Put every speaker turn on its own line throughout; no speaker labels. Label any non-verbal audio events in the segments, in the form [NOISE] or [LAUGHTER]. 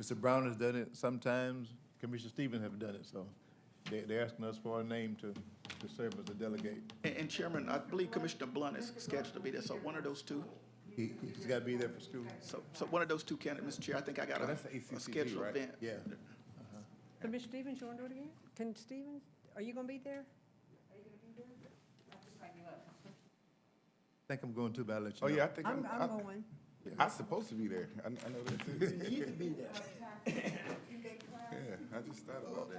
Mr. Brown has done it sometimes, Commissioner Stevens have done it, so they, they're asking us for a name to, to serve as a delegate.
And and Chairman, I believe Commissioner Blunt is scheduled to be there, so one of those two,
He, he's gotta be there for school.
so, so one of those two candidates, Mr. Chair, I think I got
Oh,
a
that's the
a
ACCG,
scheduled
right?
event.
Yeah.
Commissioner Stevens, you want to do it again? Can Stevens, are you going to be there?
I think I'm going to, but I'll let
Oh,
you know.
yeah, I think
I'm,
I'm,
I'm
I-
going.
I'm supposed to be there. I, I know that too. You can be there. Yeah, I just thought about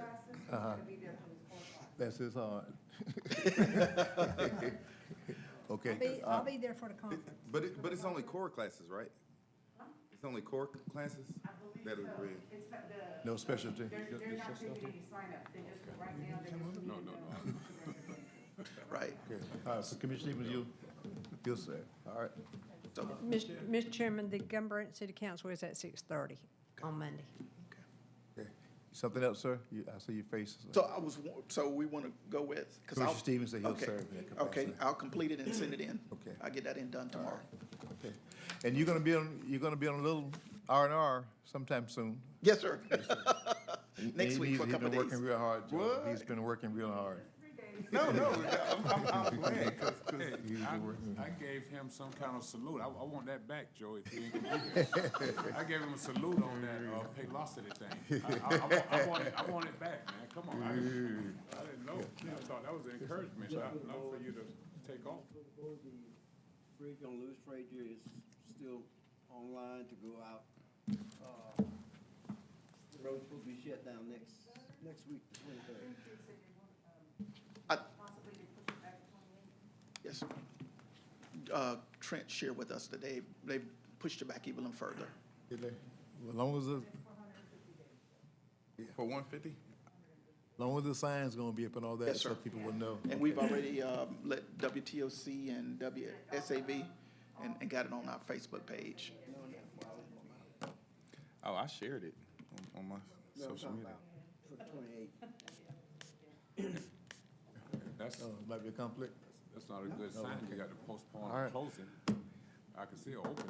that.
That's his
[LAUGHS]
hard.
I'll
Okay,
be, I'll be there for the conference.
But it, but it's only core classes, right? It's only core classes that are read.
It's not the,
no specialty.
they're, they're not taking any sign up, they're just, right now, they're just. No, no, no.
Right.
Okay. All right, so Commissioner Stevens, you, you'll serve, all right?
So,
Mr. Chairman, the Gun Branch City Council is at 6:30 on Monday.
Okay. Something else, sir? You, I see your face.
so I was, wa- so we want to go with, because I'll.
Commissioner Stevens said he'll
Okay.
serve in that capacity.
Okay, I'll complete it and send it in.
Okay.
I'll get that in done tomorrow.
Okay. And you're gonna be on, you're gonna be on a little R and R sometime soon.
Yes, sir. Next
He-
week for a
he's- He's
couple
been
days.
working real hard, Joe.
What?
He's been working real hard.
No, no, I'm, I'm, I'm playing. 'cause- 'cause
Hey,
He was
I,
working.
I gave him some kind of salute. I, I want that back, Joe, if you ain't gonna be there. I gave him a salute on that, uh, Paylocity thing. I, I, I want- I want it, I want it back, man. Come on. I didn't, I didn't know. I thought that was an encouragement, not, not for you to take off.
Before the bridge on Lewis Frazier is still online to go out, uh, the road's supposed to be shut down next, next week, the twenty-third.
Yes. Uh, Trent shared with us that they, they pushed it back even further.
Did they? As long as, the as
For one fifty?
long as the sign's gonna be up and all that,
Yes,
so
sir.
people will know.
And we've already um, let WTOC and WSAV and, and got it on our Facebook page.
Oh, I shared it on, on my
No, I'm
social
talking
media.
about for the twenty-eighth.
That's,
Oh, Might be a conflict.
that's not a good sign. You got to postpone
All right.
the closing. I can see it opening.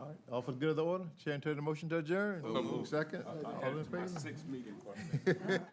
All right, all for the good of the order. Chair, turn the motion to adjourn.
So moved.
Second,
I- I
all
added
in
to my
favor?
Six meeting question.